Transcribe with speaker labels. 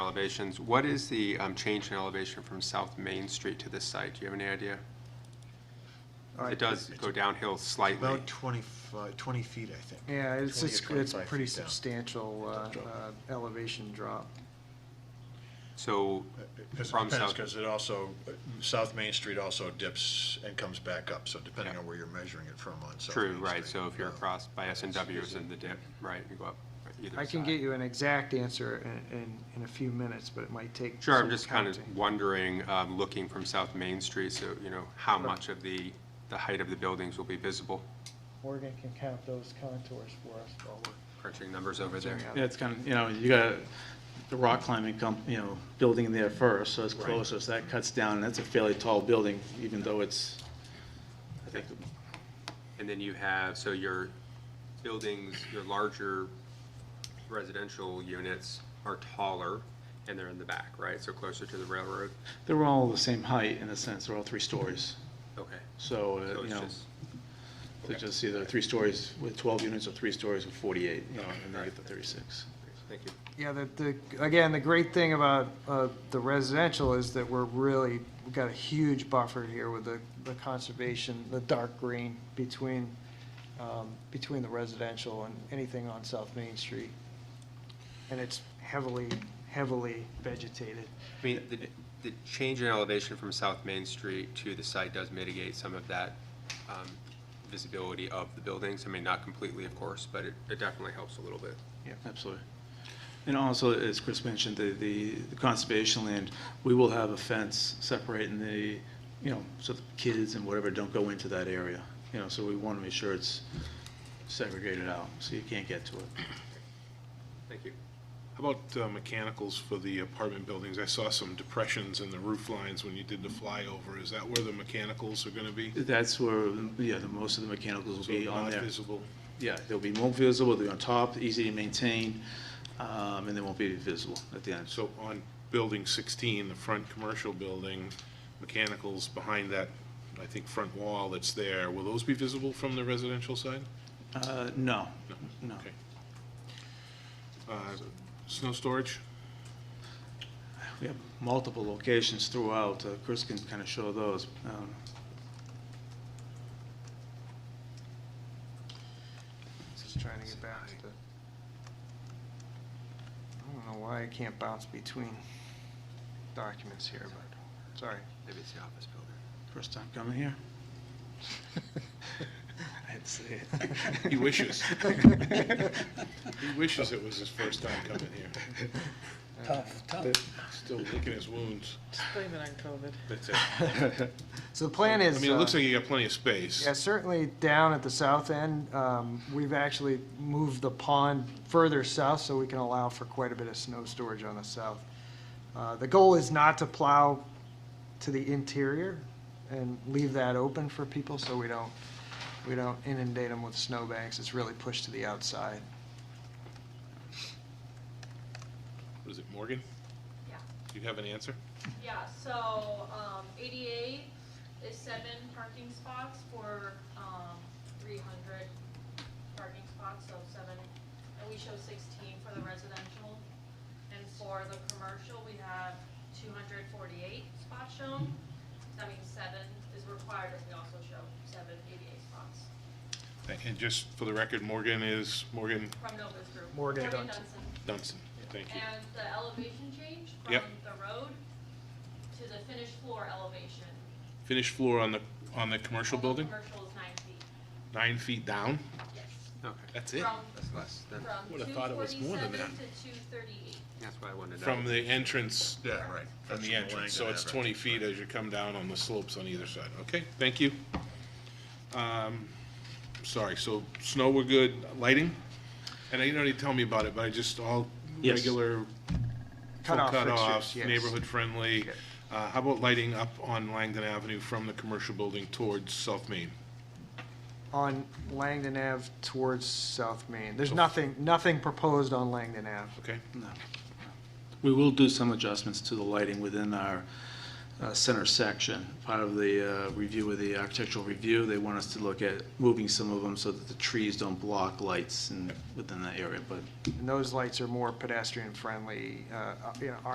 Speaker 1: elevations. What is the um, change in elevation from South Main Street to this site? Do you have any idea?
Speaker 2: All right,
Speaker 1: It does
Speaker 2: it's
Speaker 1: go downhill slightly.
Speaker 3: About 25, 20 feet, I think.
Speaker 2: Yeah, it's,
Speaker 3: 20 or
Speaker 2: it's, it's
Speaker 3: 25
Speaker 2: pretty
Speaker 3: feet down.
Speaker 2: substantial, uh,
Speaker 3: Drop.
Speaker 2: uh, elevation drop.
Speaker 1: So,
Speaker 3: Because
Speaker 1: From
Speaker 3: Uh, it depends,
Speaker 1: south.
Speaker 3: 'cause it also, uh, South Main Street also dips and comes back up, so depending
Speaker 1: Yeah.
Speaker 3: on where you're measuring it from on South
Speaker 1: true,
Speaker 3: Main
Speaker 1: right,
Speaker 3: Street, Uh,
Speaker 1: so if you're
Speaker 3: yeah.
Speaker 1: across by S and W, it's
Speaker 3: Excuse
Speaker 1: in
Speaker 3: me.
Speaker 1: the dip, right, you go up either
Speaker 2: I can
Speaker 1: side.
Speaker 2: get you an exact answer in, in, in a few minutes, but it might take.
Speaker 1: Sure, I'm
Speaker 2: some
Speaker 1: just kind of
Speaker 2: counting.
Speaker 1: wondering, um, looking from South Main Street, so, you know, how
Speaker 2: Sure.
Speaker 1: much of the, the height of the buildings will be visible?
Speaker 2: Morgan can count those contours for us while we're.
Speaker 1: Crunching numbers over there.
Speaker 2: doing
Speaker 4: Yeah,
Speaker 2: it.
Speaker 4: it's kind of, you know, you got the rock climbing comp, you know, building in there first, so it's closer, so that cuts down, and that's a fairly tall building, even though it's, I think,
Speaker 1: And then you have, so your buildings, your larger residential units are taller, and they're in the back, right, so closer to the railroad?
Speaker 4: they're all the same height in a sense, they're all three stories.
Speaker 1: Okay,
Speaker 4: So, uh,
Speaker 1: so
Speaker 4: you
Speaker 1: it's
Speaker 4: know,
Speaker 1: just,
Speaker 4: they're just either three stories with 12 units or three stories with 48, you know, and they get the 36.
Speaker 1: thank you.
Speaker 2: Yeah, the, the, again, the great thing about, uh, the residential is that we're really, we've got a huge buffer here with the, the conservation, the dark green between, um, between the residential and anything on South Main Street. And it's heavily, heavily vegetated.
Speaker 1: I mean, the, the change in elevation from South Main Street to the site does mitigate some of that um, visibility of the buildings. I mean, not completely, of course, but it, it definitely helps a little bit.
Speaker 4: Yeah, absolutely. And also, as Chris mentioned, the, the the conservation land, we will have a fence separating the, you know, so the kids and whatever don't go into that area. You know, so we want to make sure it's segregated out, so you can't get to it.
Speaker 1: Thank you.
Speaker 5: How about uh, mechanicals for the apartment buildings? I saw some depressions in the roof lines when you did the flyover. Is that where the mechanicals are going to be?
Speaker 4: That's where, yeah, the, most of the mechanicals will
Speaker 5: So
Speaker 4: be on
Speaker 5: not
Speaker 4: there.
Speaker 5: visible?
Speaker 4: Yeah, they'll be more visible, they'll be on top, easy to maintain, um, and they won't be visible at the end.
Speaker 5: So on Building 16, the front commercial building, mechanicals behind that, I think, front wall that's there, will those be visible from the residential side?
Speaker 4: Uh, no, no.
Speaker 5: Okay. Uh, Snow storage?
Speaker 4: We have multiple locations throughout. Uh, Chris can kind of show those. Um,
Speaker 2: Just trying to get back to the. I don't know why I can't bounce between documents here, but, sorry.
Speaker 1: Maybe it's the office building.
Speaker 4: First time coming here? I had to say it.
Speaker 5: He wishes. He wishes it was his first time coming here.
Speaker 6: Tough, tough.
Speaker 5: Still licking his wounds.
Speaker 6: Just blame it on COVID.
Speaker 5: That's it.
Speaker 2: So the plan is.
Speaker 5: I mean, it looks
Speaker 2: uh,
Speaker 5: like you got plenty of space.
Speaker 2: Yeah, certainly down at the south end, um, we've actually moved the pond further south so we can allow for quite a bit of snow storage on the south. Uh, The goal is not to plow to the interior and leave that open for people so we don't, we don't inundate them with snowbanks. It's really pushed to the outside.
Speaker 5: What is it, Morgan?
Speaker 7: Yeah.
Speaker 5: Do you have an answer?
Speaker 7: Yeah, so, um, ADA is seven parking spots for, um, three hundred parking spots, so seven. And we show sixteen for the residential. And for the commercial, we have two hundred forty-eight spots shown. That means seven is required, and we also show seven ADA spots
Speaker 5: Thank- And just for the record, Morgan is Morgan
Speaker 7: from Nova's group.
Speaker 2: Morgan Dunson.
Speaker 7: Dunson.
Speaker 5: Dunson. Thank you.
Speaker 7: And the elevation change from
Speaker 5: Yep.
Speaker 7: the road to the finished floor elevation
Speaker 5: Finished floor on the, on the commercial
Speaker 7: All the
Speaker 5: building,
Speaker 7: Commercial is nine feet,
Speaker 5: nine feet down?
Speaker 7: yes.
Speaker 1: Okay,
Speaker 5: That's it?
Speaker 7: From,
Speaker 1: that's less, than-
Speaker 7: from
Speaker 5: Would've
Speaker 7: two
Speaker 5: thought it was more
Speaker 7: forty-seven
Speaker 5: than
Speaker 7: to
Speaker 5: that.
Speaker 7: two thirty-eight.
Speaker 1: that's what I wanted to know.
Speaker 5: From the entrance? Yeah, right. From
Speaker 3: That's
Speaker 5: the
Speaker 3: from the
Speaker 5: entrance. So
Speaker 3: Langdon
Speaker 5: it's
Speaker 3: Avenue.
Speaker 5: 20 feet as you come down on the slopes on either side. Okay, thank you. Um, Sorry, so snow, we're good. Lighting? And you don't need to tell me about it, but I just, all
Speaker 4: Yes.
Speaker 5: regular full
Speaker 2: Cutoff fixtures,
Speaker 5: cutoff,
Speaker 2: yes.
Speaker 5: neighborhood friendly.
Speaker 2: Yeah.
Speaker 5: Uh, How about lighting up on Langdon Avenue from the commercial building towards South Main?
Speaker 2: On Langdon Ave towards South Main. There's
Speaker 5: So-
Speaker 2: nothing, nothing proposed on Langdon Ave.
Speaker 5: Okay?
Speaker 4: No. We will do some adjustments to the lighting within our uh, center section. Part of the uh, review of the architectural review, they want us to look at moving some of them so that the trees don't block lights and within that area, but
Speaker 2: And those lights are more pedestrian friendly, uh, you know,